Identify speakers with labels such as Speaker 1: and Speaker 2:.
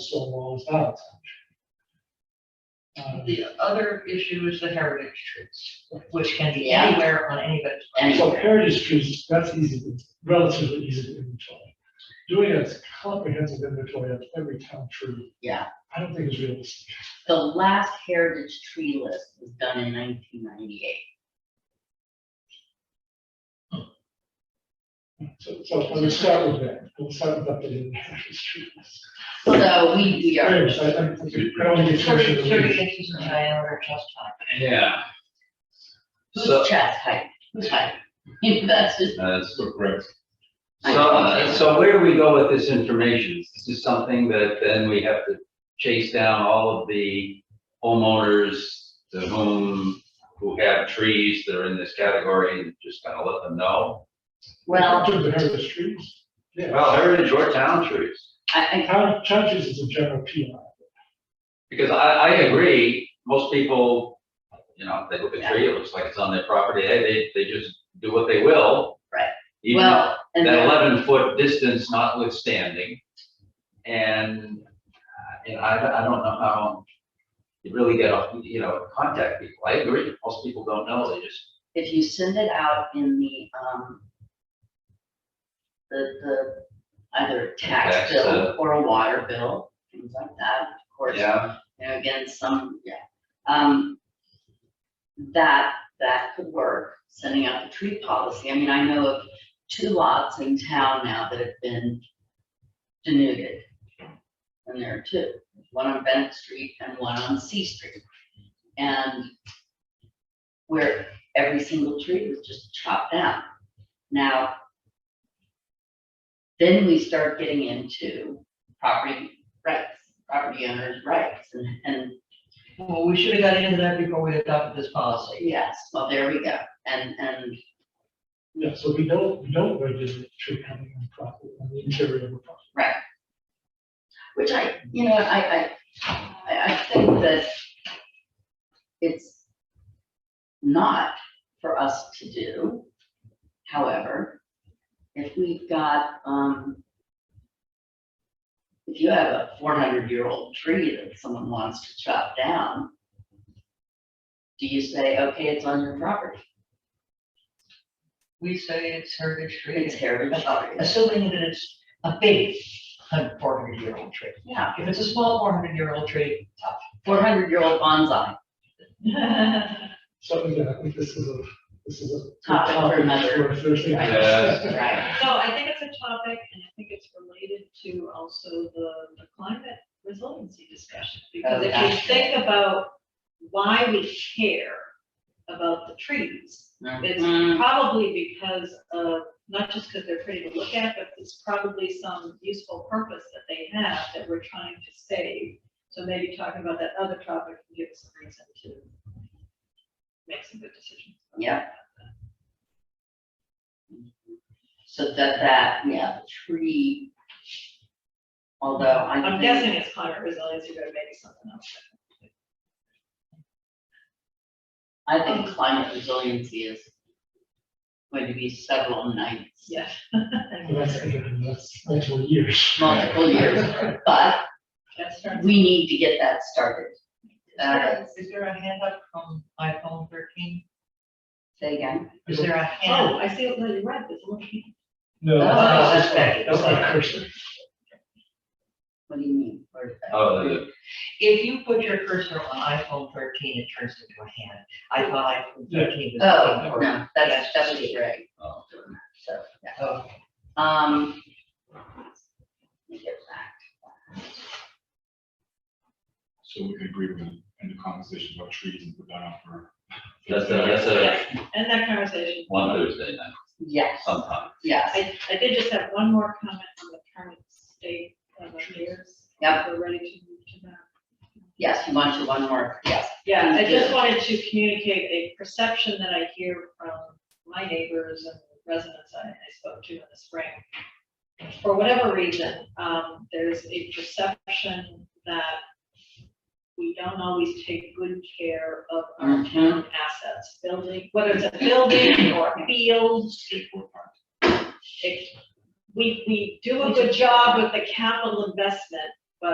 Speaker 1: stone walls out. Uh,
Speaker 2: The other issue is the heritage trees, which can be
Speaker 3: Yeah.
Speaker 2: anywhere on anybody's.
Speaker 1: So
Speaker 3: Anyway,
Speaker 1: heritage trees, that's easy, to- relatively easy to inventory. Doing a comprehensive inventory of every town tree,
Speaker 3: yeah,
Speaker 1: I don't think is realistic.
Speaker 3: the last heritage tree list was done in nineteen ninety-eight.
Speaker 1: So, so I'm gonna start with that, we'll start with updating heritage trees.
Speaker 3: So we, we
Speaker 4: Hmm.
Speaker 3: are,
Speaker 1: Anyways, I, I I don't think it's.
Speaker 2: Thirty, thirty inches in diameter chest height.
Speaker 4: Yeah. So, uh,
Speaker 3: who's chest height, who's height? That's just,
Speaker 4: that's correct.
Speaker 3: I
Speaker 4: So,
Speaker 3: don't
Speaker 4: uh,
Speaker 3: know.
Speaker 4: so where do we go with this information? Is This is something that then we have to chase down all of the homeowners to whom, who have trees that are in this category and just kind of let them know.
Speaker 3: well,
Speaker 1: In terms of heritage trees, yeah.
Speaker 4: Well, heritage or town trees.
Speaker 3: I,
Speaker 1: Town, town trees is a general PI.
Speaker 4: Because I, I agree, most people, you know, if they look at a tree, it looks like it's on their property, hey, they, they just do what they will.
Speaker 3: Right. I,
Speaker 4: Even
Speaker 3: well, and
Speaker 4: that
Speaker 3: then,
Speaker 4: eleven foot distance notwithstanding. And, uh, you know, I, I don't know how you really get, off, you know, contact people. I agree, most people don't know, they just,
Speaker 3: if you send it out in the, um, the, the, either tax
Speaker 4: Tax,
Speaker 3: bill
Speaker 4: uh,
Speaker 3: or a water bill, things like that, of course.
Speaker 4: yeah,
Speaker 3: you know, again, some, yeah. Um, that, that could work, sending out the tree policy. I mean, I know of two lots in town now that have been denuded. And there are two, one on Bennett Street and one on C Street. And where every single tree was just chopped down. Now, then we start getting into property rights, property owners' rights, and, and,
Speaker 2: Well, we should have got into that before we adopted this policy.
Speaker 3: yes, well, there we go, and, and,
Speaker 1: Yeah, so we don't, we don't regulate tree cutting on property, on the interior of a property.
Speaker 3: which I, you know, I, I, I, I think that it's not for us to do, however, if we've got, um, if you have a four hundred year old tree that someone wants to chop down, do you say, okay, it's on your property,
Speaker 2: We say it's heritage
Speaker 3: it's
Speaker 2: trees,
Speaker 3: heritage property,
Speaker 2: assuming that it's a big four hundred year old tree.
Speaker 3: yeah.
Speaker 2: If it's a small four hundred year old tree, tough.
Speaker 3: four hundred year old bonsai.
Speaker 1: So, yeah, I think this is a, this is a.
Speaker 3: Topic for another-
Speaker 1: for a Thursday.
Speaker 3: Right.
Speaker 4: Yes.
Speaker 3: Right.
Speaker 5: No, I think it's a topic and I think it's related to also the, the climate resiliency discussion. Because if
Speaker 3: Okay.
Speaker 5: you think about why we care about the trees,
Speaker 3: Mm.
Speaker 5: it's probably because of, not just because they're pretty to look at, but it's probably some useful purpose that they have that we're trying to save. So maybe talking about that other topic can give us a reason to make some good decisions.
Speaker 3: Yeah. So that, that, yeah, the tree. Although I.
Speaker 5: I'm
Speaker 3: think-
Speaker 5: guessing it's climate resiliency, but maybe something else.
Speaker 3: I think climate resiliency is going to be several nights,
Speaker 5: Yeah.
Speaker 1: And that's, again, that's multiple years.
Speaker 3: multiple years, but
Speaker 5: That's right.
Speaker 3: we need to get that started. Uh,
Speaker 2: Is there a hand up from iPhone thirteen?
Speaker 3: say again,
Speaker 2: Is there a hand?
Speaker 5: Oh, I see, no, you're right, there's a little. key.
Speaker 1: No,
Speaker 3: Oh,
Speaker 1: that's, that's,
Speaker 2: that's bad.
Speaker 1: that's not cursing.
Speaker 3: what do you mean? Where's that?
Speaker 4: oh, the-
Speaker 2: If you put your cursor on iPhone thirteen, it turns into a hand. I thought iPhone thirteen was.
Speaker 3: Oh,
Speaker 2: or-
Speaker 3: no, that's, that was Greg.
Speaker 4: Oh.
Speaker 3: So, yeah.
Speaker 2: Oh,
Speaker 3: Um. Let me get back.
Speaker 6: So we can agree with them in the conversation about trees and put that out for.
Speaker 4: that's a, that's a
Speaker 5: Yeah, End that conversation.
Speaker 4: one Thursday night
Speaker 3: Yes,
Speaker 4: sometime.
Speaker 3: yes.
Speaker 5: I, I did just have one more comment on the current state of affairs.
Speaker 3: Yep.
Speaker 5: We're ready to move to that.
Speaker 3: Yes, you want your one more, yes.
Speaker 5: Yeah, I just
Speaker 3: Yeah.
Speaker 5: wanted to communicate a perception that I hear from my neighbors and residents I I spoke to in the spring. For whatever reason, um, there's a perception that we don't always take good care of our
Speaker 3: Mhm.
Speaker 5: town assets, building, whether it's a building or a field. it- We, we do a good job with the capital investment,